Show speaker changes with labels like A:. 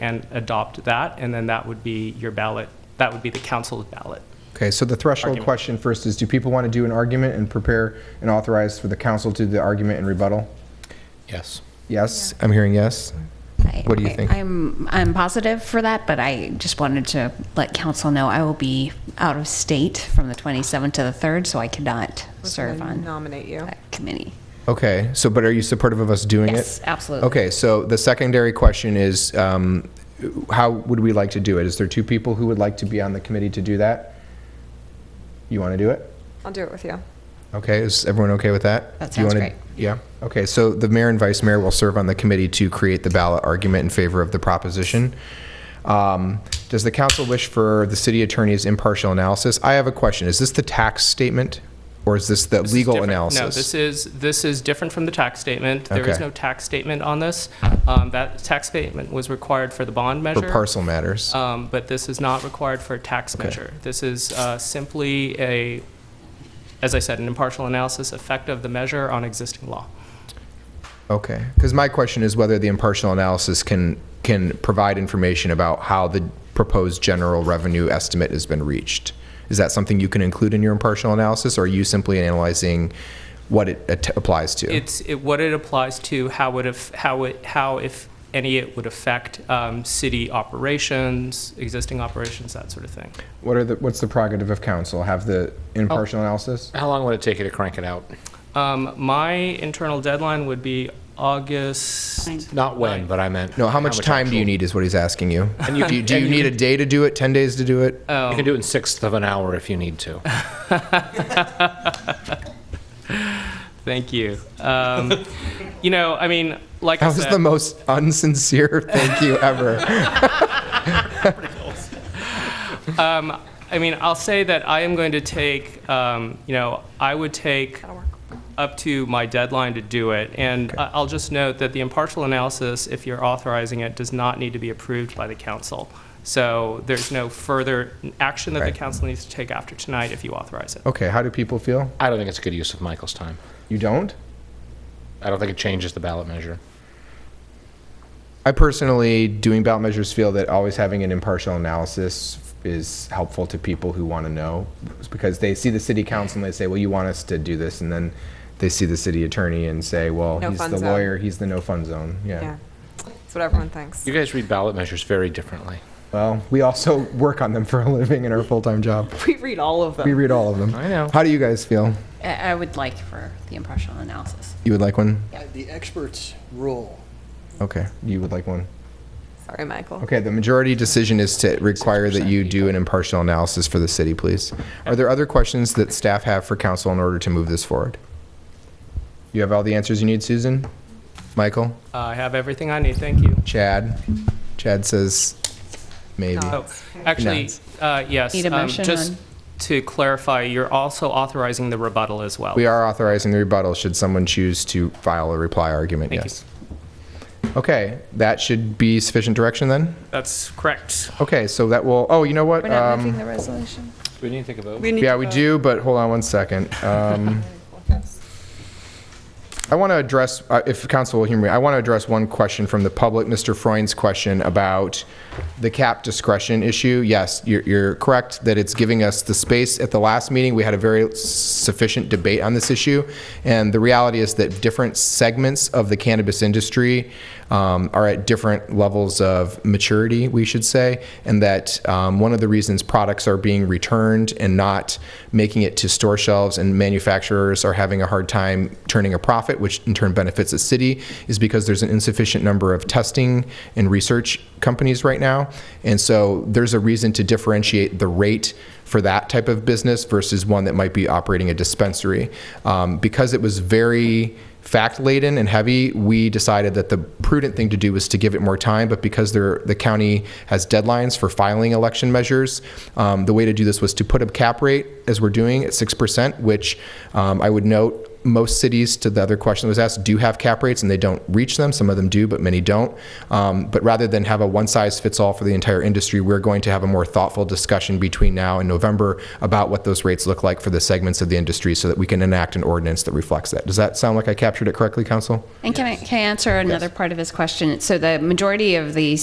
A: and adopt that, and then that would be your ballot, that would be the council's ballot.
B: Okay, so the threshold
A: Argument.
B: question first is, do people want to do an argument and prepare and authorize for the council to do the argument and rebuttal?
C: Yes.
B: Yes, I'm hearing yes.
D: I-
B: What do you
D: I-
B: think?
D: I'm, I'm positive for that, but I just wanted to let council know I will be out of state from the 27th to the 3rd, so I cannot
E: was
D: serve
E: gonna
D: on
E: Nominate you.
D: that committee.
B: Okay, so, but are you supportive of us doing it?
D: Yes, absolutely.
B: Okay, so the secondary question is, um, how would we like to do it? Is there two people who would like to be on the committee to do that? You want to do it?
E: I'll do it with you.
B: Okay, is everyone okay with that?
D: That
B: Do you
D: sounds
B: wanna-
D: great.
B: Yeah, okay, so the mayor and vice mayor will serve on the committee to create the ballot argument in favor of the proposition. Um, Does the council wish for the city attorney's impartial analysis? I have a question, is this the tax statement, or is this the
A: This is
B: legal
A: different-
B: analysis?
A: No, this is, this is different from the tax statement. There is
B: Okay.
A: no tax statement on this. Um, That tax statement was required for the bond measure.
B: For parcel matters?
A: Um, But this is not required for a tax measure. This is uh, simply a, as I said, an impartial analysis effect of the measure on existing law.
B: Okay, because my question is whether the impartial analysis can, can provide information about how the proposed general revenue estimate has been reached. Is that something you can include in your impartial analysis, or are you simply analyzing what it at- applies to?
A: It's, it- what it applies to, how would, af- how it, how, if any, it would affect um, city operations, existing operations, that sort of thing.
B: What are the, what's the prerogative of council? Have the
C: Oh.
B: impartial analysis?
C: How long would it take you to crank it out?
A: Um, My internal deadline would be August,
C: Not when, but I meant.
B: No, how much time do you
C: actual-
B: need is what he's asking you.
C: And you
B: Do you,
C: can-
B: do you
C: and you
B: need a day to do it, 10 days to do it?
C: You can do it in sixth of an hour if you need to.
A: thank you. Um, You know, I mean, like I
B: That was
A: said.
B: the most unsincere thank you ever.
A: Um, I mean, I'll say that I am going to take, um, you know, I would take up to my deadline to do it. And I- I'll just note that the impartial analysis, if you're authorizing it, does not need to be approved by the council. So there's no further action that the
B: Right.
A: council needs to take after tonight if you authorize it.
B: Okay, how do people feel?
C: I don't think it's a good use of Michael's time.
B: You don't?
C: I don't think it changes the ballot measure.
B: I personally, doing ballot measures, feel that always having an impartial analysis is helpful to people who want to know, because they see the city council and they say, well, you want us to do this, and then they see the city attorney and say, well,
E: No
B: he's
E: fun
B: the
E: zone.
B: lawyer, he's the no-fun zone, yeah.
E: Yeah. That's what everyone thinks.
C: You guys read ballot measures very differently.
B: Well, we also work on them for a living in our full-time job.
E: We read all of
B: We
E: them.
B: read all of them.
C: I know.
B: How do you guys feel?
D: I I would like for the impartial analysis.
B: You would like one?
F: The experts rule.
B: Okay, you would like one.
E: Sorry, Michael.
B: Okay, the majority decision is to require that you do an impartial analysis for the city, please. Are there other questions that staff have for council in order to move this forward? You have all the answers you need, Susan? Michael?
A: I have everything I need, thank you.
B: Chad? Chad says maybe.
E: No.
A: Oh, actually, uh, yes.
D: Need a
A: um,
D: motion
A: Just
D: on-
A: to clarify, you're also authorizing the rebuttal as well.
B: We are authorizing the rebuttal should someone choose to file a reply argument,
A: Thank you.
B: yes. Okay, that should be sufficient direction then?
A: That's correct.
B: Okay, so that will, oh, you know what? Um,
G: the resolution?
C: We need to take a vote.
E: We need
B: Yeah,
E: to
B: we
E: vote.
B: do, but hold on one second. Um, I want to address, uh, if council will hear me, I want to address one question from the public, Mr. Freund's question about the cap discretion issue. Yes, you're, you're correct that it's giving us the space. At the last meeting, we had a very sufficient debate on this issue, and the reality is that different segments of the cannabis industry um, are at different levels of maturity, we should say, and that um, one of the reasons products are being returned and not making it to store shelves and manufacturers are having a hard time turning a profit, which in turn benefits the city, is because there's an insufficient number of testing and research companies right now. And so there's a reason to differentiate the rate for that type of business versus one that might be operating a dispensary. Um, because it was very fact laden and heavy, we decided that the prudent thing to do was to give it more time. But because there, the county has deadlines for filing election measures, um, the way to do this was to put a cap rate, as we're doing, at 6%, which um, I would note most cities, to the other question that was asked, do have cap rates and they don't reach them. Some of them do, but many don't. Um, but rather than have a one size fits all for the entire industry, we're going to have a more thoughtful discussion between now and November about what those rates look like for the segments of the industry so that we can enact an ordinance that reflects that. Does that sound like I captured it correctly, Council?
D: And can I, can I answer another part of his question? So the majority of the